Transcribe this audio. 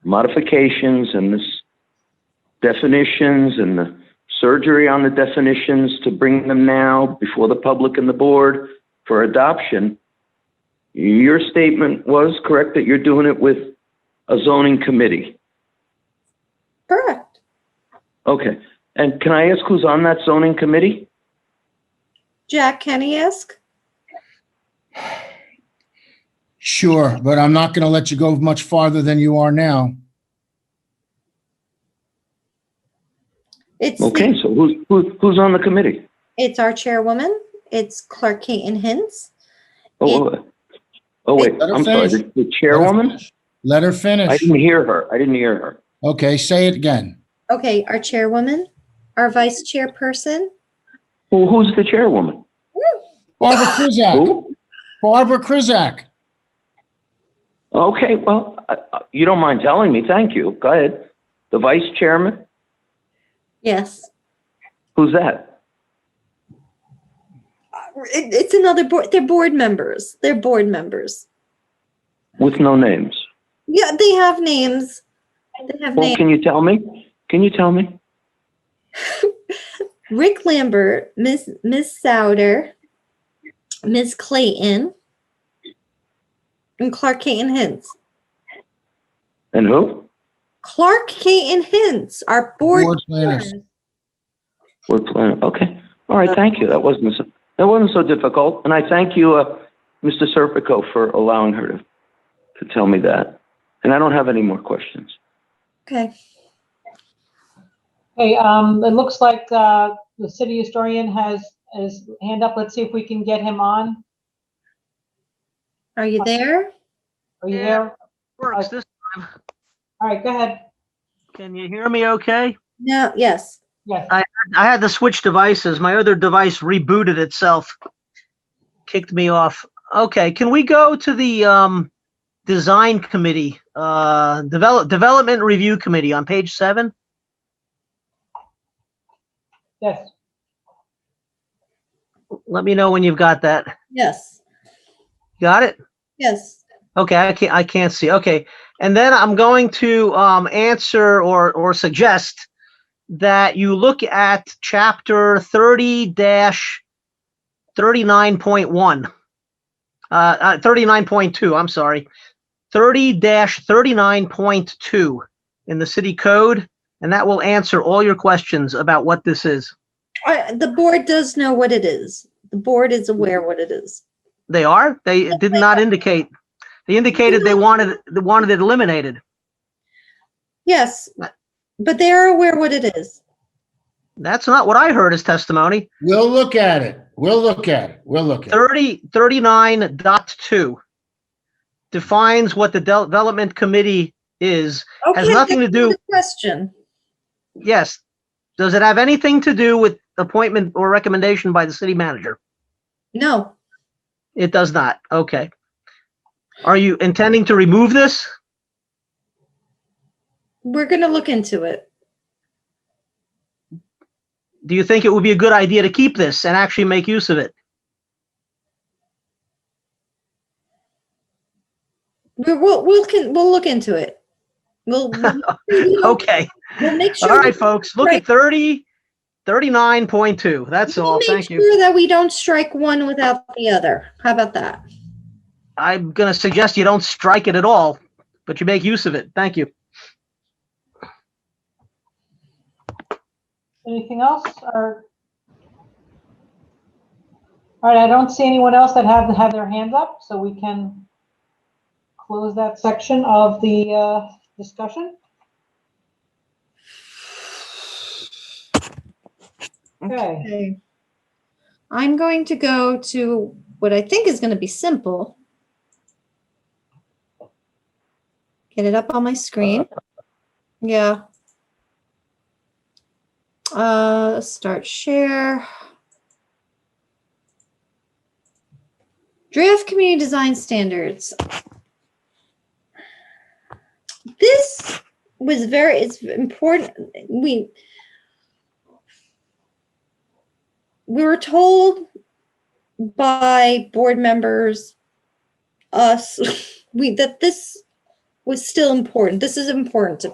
modifications and this definitions and the surgery on the definitions to bring them now before the public and the board for adoption. Your statement was correct that you're doing it with a zoning committee. Correct. Okay. And can I ask who's on that zoning committee? Jack Kenny-esque? Sure, but I'm not going to let you go much farther than you are now. It's, the- Okay, so who's, who's, who's on the committee? it's our chairwoman. It's Clerk Keaton Hintz. Oh, oh, oh, wait, Let her I'm sorry, finish. the- the chairwoman? Let her I finish. didn't hear her. I didn't hear her. Okay, say it again. Okay, our chairwoman, our vice chairperson. Who, who's the chairwoman? Barbara Krizak. Who? Barbara Krizak. Okay, well, I- I- you don't mind telling me, thank you. Go ahead. The vice chairman, Yes. who's that? It, it's another board, they're board members. They're board members. With no names. Yeah, they have names. They have Well, names. can you tell me? Can you tell me? Rick Lambert, Miss, Miss Souter, Miss Clayton, and Clark Keaton Hintz. And who? Clark Keaton Hintz, our board. Board planners. We're planning, uh, okay. All right, thank you. That wasn't, so- that wasn't so difficult. And I thank you, uh, Mr. Serpico for allowing her to, to tell me that. And I don't have any more questions. Okay. Hey, um, it looks like, uh, the city historian has his hand up. Let's see if we can get him on. Are you there? Are you Yeah. there? Works this, All right, go ahead. can you hear me okay? No, yes. Yes. I had to switch devices. My other device rebooted itself. Kicked me off. Okay, can we go to the um design committee, uh develop development review committee on page seven? Yes. Let me know when you've got that. Yes. Got it? Yes. Okay, I can't I can't see. Okay. And then I'm going to um answer or or suggest that you look at chapter 30 dash 39.1 uh, uh 39.2 i'm sorry 30 dash 39.2 in the city code and that will answer all your questions about what this is Uh, The board does know what it is. The board is aware what it is. they are they did not indicate they indicated they wanted they wanted it eliminated Yes, but they are aware what it is. that's not what i heard as testimony We'll look at it. We'll look at it. We'll look at it. 30, 39.2 defines what the de- development committee is. Has Okay, nothing to that's do- the Question. Yes. Does it have anything to do with appointment or recommendation by the city manager? No, It does not. Okay. Are you intending to remove this? we're going to look into it. Do you think it would be a good idea to keep this and actually make use of it? We're, we'll, we'll can, we'll look into it. We'll, we'll- we'll Okay. we'll make All sure. right, folks. Look at 30, 39.2. That's we'll all. make Thank you. sure That we don't strike one without the other. How about that? I'm going to suggest you don't strike it at all, but you make use of it. Thank you. Anything else or? All right, I don't see anyone else that have, have their hands up, so we can close that section of the, uh, discussion. Okay, Okay. I'm going to go to what I think is going to be simple. Get it up on my screen. Yeah. Uh, start share. Draft community design standards. This was very, it's important. We, we were told by board members us we that this was still important. This is important to